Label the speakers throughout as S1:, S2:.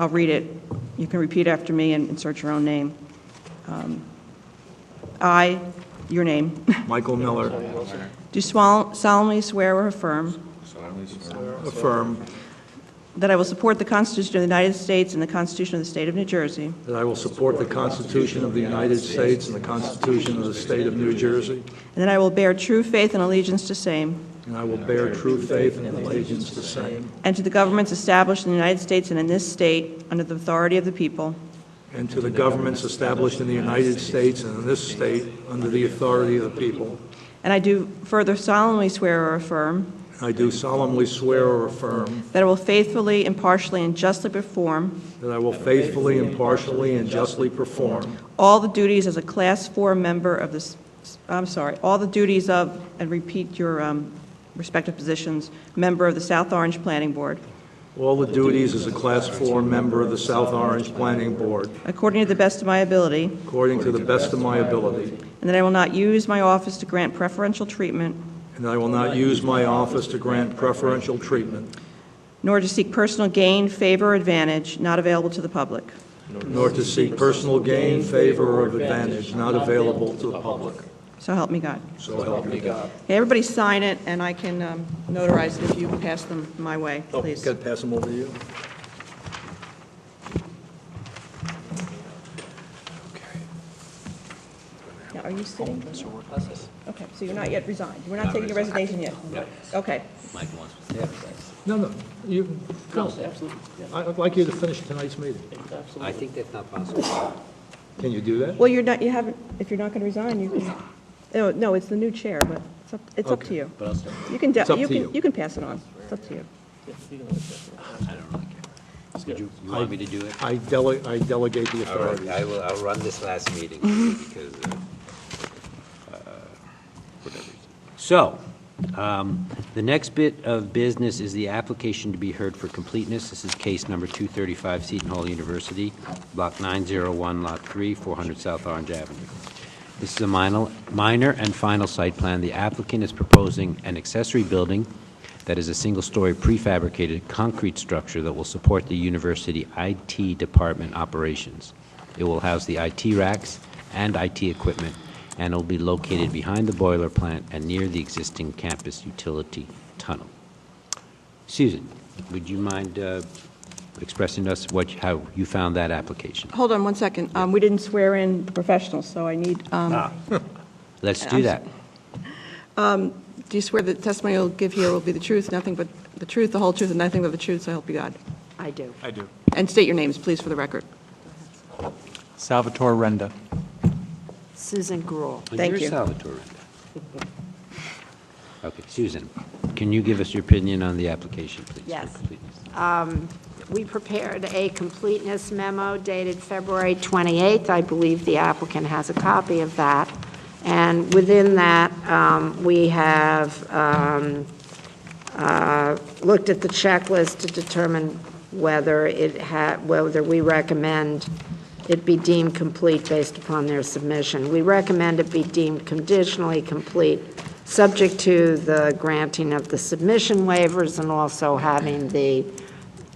S1: I'll read it. You can repeat after me and insert your own name. Um, I, your name,
S2: Michael Miller,
S1: do swal- solemnly swear or affirm
S2: affirm
S1: that I will support the Constitution of the United States and the Constitution of the State of New Jersey,
S2: that I will support the Constitution of the United States and the Constitution of the State of New Jersey,
S1: and that I will bear true faith and allegiance to same,
S2: and I will bear true faith and allegiance to same,
S1: and to the governments established in the United States and in this state under the authority of the people,
S2: and to the governments established in the United States and in this state under the authority of the people.
S1: and I do further solemnly swear or affirm
S2: I do solemnly swear or affirm
S1: that I will faithfully, impartially, and justly perform
S2: that I will faithfully, impartially, and justly perform
S1: all the duties as a Class 4 member of this, I'm sorry, all the duties of, and repeat your um, respective positions, member of the South Orange Planning Board,
S2: all the duties as a Class 4 member of the South Orange Planning Board,
S1: according to the best of my ability,
S2: according to the best of my ability,
S1: and that I will not use my office to grant preferential treatment,
S2: and that I will not use my office to grant preferential treatment
S1: nor to seek personal gain, favor, or advantage not available to the public.
S2: nor to seek personal gain, favor, or advantage not available to the public.
S1: So help me God.
S2: So help me God.
S1: Okay, everybody sign it, and I can um, notarize it if you pass them my way,
S2: Oh,
S1: please.
S2: Got to pass them over to you.
S1: Now, are you sitting? Okay, so you're not yet resigned. We're not taking your resignation yet? Okay.
S3: Mike wants to
S2: No, no, you, go. I- I'd like you to finish tonight's meeting.
S3: I think that's not possible.
S2: Can you do that?
S1: Well, you're not, you haven't, if you're not going to resign, you can, no, no, it's the new chair, but it's up, it's up to
S2: Okay.
S1: you. You can,
S2: It's up
S1: de- you
S2: to you.
S1: can, you can pass it on. It's up to you.
S3: I don't really care. Would you, you want me to do it?
S2: I dele, I delegate the
S3: All right,
S2: authority.
S3: I will, I'll run this last meeting because of, uh, whatever. So, um, the next bit of business is the application to be heard for completeness. This is case number 235 Seton Hall University, Block 901, Lot 3, 400 South Orange Avenue. This is a minor, minor and final site plan. The applicant is proposing an accessory building that is a single-story prefabricated concrete structure that will support the university IT department operations. It will house the IT racks and IT equipment, and it will be located behind the boiler plant and near the existing campus utility tunnel. Susan, would you mind uh, expressing to us what, how you found that application?
S1: Hold on one second. Um, We didn't swear in the professionals, so I need, um,
S2: Ah.
S3: Let's
S1: I'm
S3: do
S1: s-
S3: that.
S1: do you swear that the testimony you'll give here will be the truth, nothing but the truth, the whole truth, and nothing but the truth, so help you God?
S4: I do.
S5: I do.
S1: And state your names, please, for the record.
S5: Salvatore Renda.
S4: Susan Gruhl.
S3: And
S1: Thank
S3: you're
S1: you.
S3: Salvatore. Okay, Susan, can you give us your opinion on the application, please? for
S4: Yes.
S3: completeness?
S4: We prepared a completeness memo dated February 28th. I believe the applicant has a copy of that. And within that, um, we have um, uh, looked at the checklist to determine whether it had, whether we recommend it be deemed complete based upon their submission. We recommend it be deemed conditionally complete, subject to the granting of the submission waivers and also having the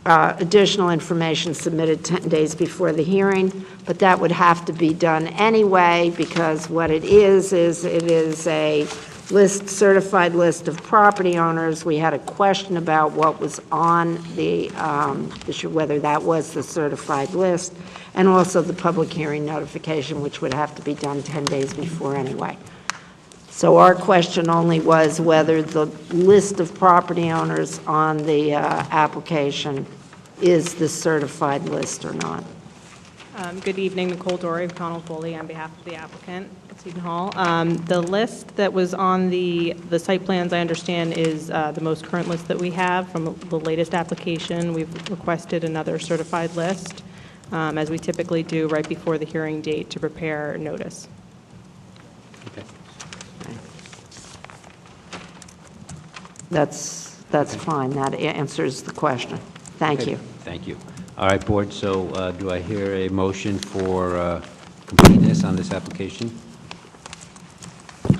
S4: uh, additional information submitted 10 days before the hearing, but that would have to be done anyway, because what it is, is it is a list, certified list of property owners. We had a question about what was on the, um, issue, whether that was the certified list, and also the public hearing notification, which would have to be done 10 days before anyway. So our question only was whether the list of property owners on the uh, application is the certified list or not.
S6: Um, Good evening, Nicole Dory, Connell Foley, on behalf of the applicant at Seton Hall. Um, The list that was on the, the site plans, I understand, is uh, the most current list that we have from the latest application. We've requested another certified list, um, as we typically do right before the hearing date to prepare notice.
S3: Okay.
S4: That's, that's fine, that answers the question. Thank you.
S3: Thank you. All right, board, so uh, do I hear a motion for uh, completeness on this application?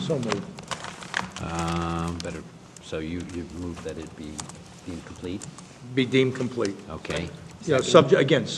S2: So moved.
S3: Um, Better, so you, you've moved that it be deemed complete?
S2: Be deemed complete.
S3: Okay.
S2: Yeah, subject, again,